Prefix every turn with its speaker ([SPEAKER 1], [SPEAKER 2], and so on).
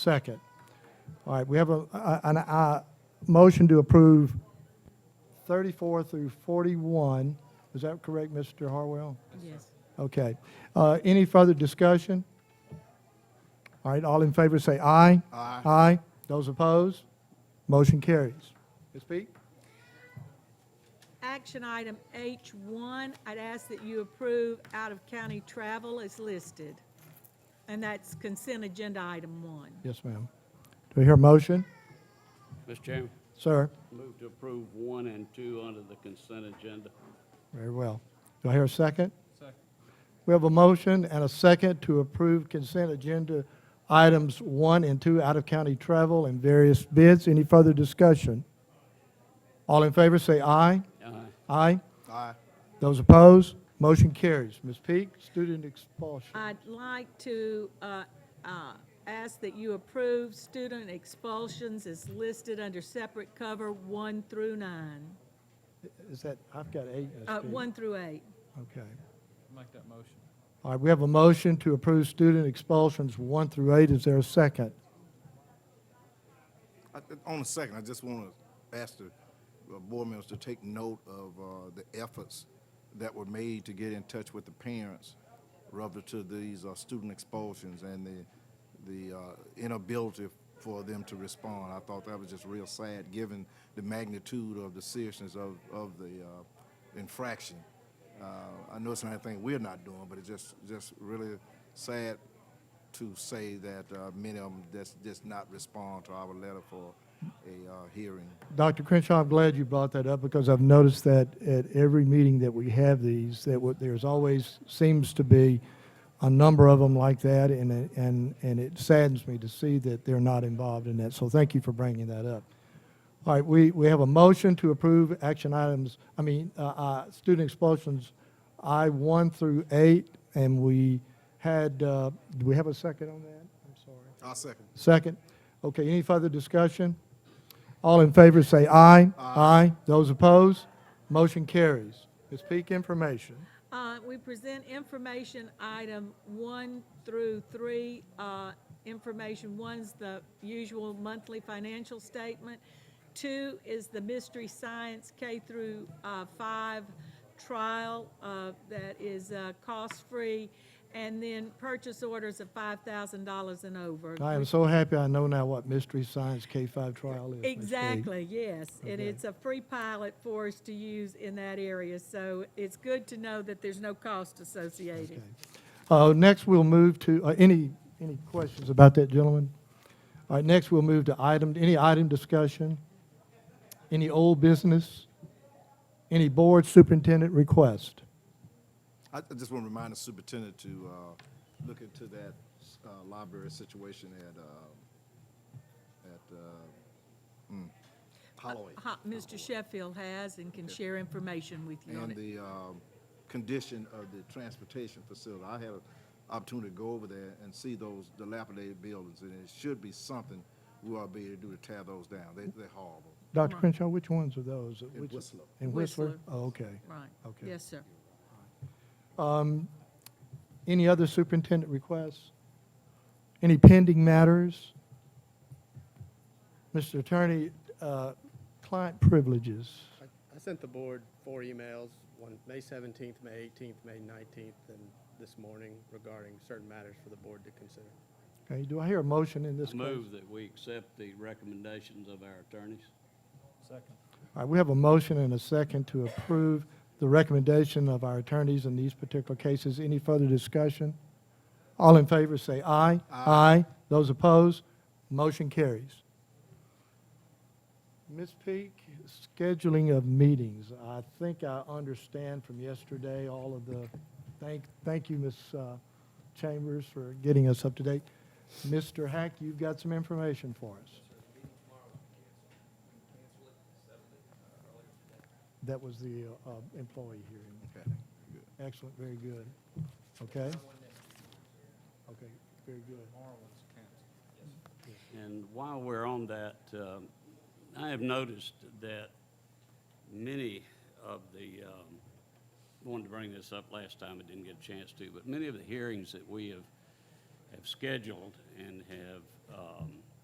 [SPEAKER 1] Second. All right, we have a, a- an, a motion to approve 34 through 41. Is that correct, Mr. Harwell?
[SPEAKER 2] Yes.
[SPEAKER 1] Okay. Uh, Any further discussion? All right, all in favor say aye. Aye. Aye. Those opposed? Motion carries. Ms. Peak?
[SPEAKER 2] Action item H1, I'd ask that you approve out-of-county travel as listed. And that's consent agenda item one.
[SPEAKER 1] Yes, ma'am. Do we hear a motion?
[SPEAKER 3] Mr. Chairman,
[SPEAKER 1] Sir?
[SPEAKER 3] move to approve one and two under the consent agenda.
[SPEAKER 1] Very well. Do I hear a second? Second. We have a motion and a second to approve consent agenda items one and two, out-of-county travel and various bids. Any further discussion? All in favor, say aye.
[SPEAKER 3] Aye.
[SPEAKER 1] Aye? Aye. Those opposed? Motion carries. Ms. Peak, student expulsion.
[SPEAKER 2] I'd like to uh, uh, ask that you approve student expulsions as listed under separate cover one through nine,
[SPEAKER 1] Is that, I've got eight. Ms.
[SPEAKER 2] uh,
[SPEAKER 1] Peak.
[SPEAKER 2] one through eight.
[SPEAKER 1] Okay.
[SPEAKER 4] Make that motion.
[SPEAKER 1] All right, we have a motion to approve student expulsions one through eight. Is there a second?
[SPEAKER 5] I- On the second, I just want to ask the uh, board members to take note of uh, the efforts that were made to get in touch with the parents relative to these uh, student expulsions and the, the uh, inability for them to respond. I thought that was just real sad, given the magnitude of the seriousness of, of the uh, infraction. Uh, I know it's not anything we're not doing, but it's just, just really sad to say that uh, many of them just, just not respond to our letter for a uh, hearing.
[SPEAKER 1] Dr. Crenshaw, I'm glad you brought that up because I've noticed that at every meeting that we have these, that what- there's always, seems to be a number of them like that, and, it- and, and it saddens me to see that they're not involved in that. So thank you for bringing that up. All right, we, we have a motion to approve action items, I mean, uh, uh, student expulsions, I one through eight, and we had, uh, do we have a second on that? I'm sorry.
[SPEAKER 5] I'll second.
[SPEAKER 1] Second. Okay, any further discussion? All in favor say aye. Aye. Those opposed? Motion carries. Ms. Peak, information.
[SPEAKER 2] Uh, We present information item one through three. Uh, Information one's the usual monthly financial statement. Two is the mystery science K through uh, five trial uh, that is uh, cost-free, and then purchase orders of $5,000 and over.
[SPEAKER 1] I am so happy I know now what Mystery Science K-5 trial is. Ms. Peak.
[SPEAKER 2] Exactly, yes. And
[SPEAKER 1] Okay.
[SPEAKER 2] it's a free pilot for us to use in that area, so it's good to know that there's no cost associated.
[SPEAKER 1] Uh, Next, we'll move to, uh, any, any questions about that, gentlemen? All right, next, we'll move to item, any item discussion? Any old business? Any board superintendent request?
[SPEAKER 5] I I just want to remind the superintendent to uh, look into that uh, library situation at, uh, at uh, mm, Holloway.
[SPEAKER 2] Ha- Mr. Uh-huh, Sheffield has and can share information with you on
[SPEAKER 5] and
[SPEAKER 2] it.
[SPEAKER 5] the um, condition of the transportation facility. I had an opportunity to go over there and see those dilapidated buildings, and it should be something we ought to be able to do to tear those down. They, they're horrible.
[SPEAKER 1] Dr. Crenshaw, which ones are those?
[SPEAKER 5] In
[SPEAKER 1] Which-
[SPEAKER 5] Whistler.
[SPEAKER 1] In Whistler?
[SPEAKER 2] Whistler.
[SPEAKER 1] Oh, okay.
[SPEAKER 2] Right.
[SPEAKER 1] Okay.
[SPEAKER 2] Yes, sir.
[SPEAKER 1] Any other superintendent requests? Any pending matters? Mr. Attorney, uh, client privileges.
[SPEAKER 6] I I sent the board four emails, one May 17th, May 18th, May 19th, and this morning regarding certain matters for the board to consider.
[SPEAKER 1] Okay, do I hear a motion in this
[SPEAKER 3] I
[SPEAKER 1] case?
[SPEAKER 3] Move that we accept the recommendations of our attorneys.
[SPEAKER 4] Second.
[SPEAKER 1] All right, we have a motion and a second to approve the recommendation of our attorneys in these particular cases. Any further discussion? All in favor, say aye. Aye. Those opposed, motion carries. Ms. Peak, scheduling of meetings. I think I understand from yesterday all of the, thank, thank you, Ms. uh, Chambers, for getting us up to date. Mr. Hack, you've got some information for us. That was the uh, employee hearing.
[SPEAKER 5] Okay.
[SPEAKER 1] Excellent, very good. Okay? Okay, very good.
[SPEAKER 3] And while we're on that, um, I have noticed that many of the, um, wanted to bring this up last time, I didn't get a chance to, but many of the hearings that we have, have scheduled and have um,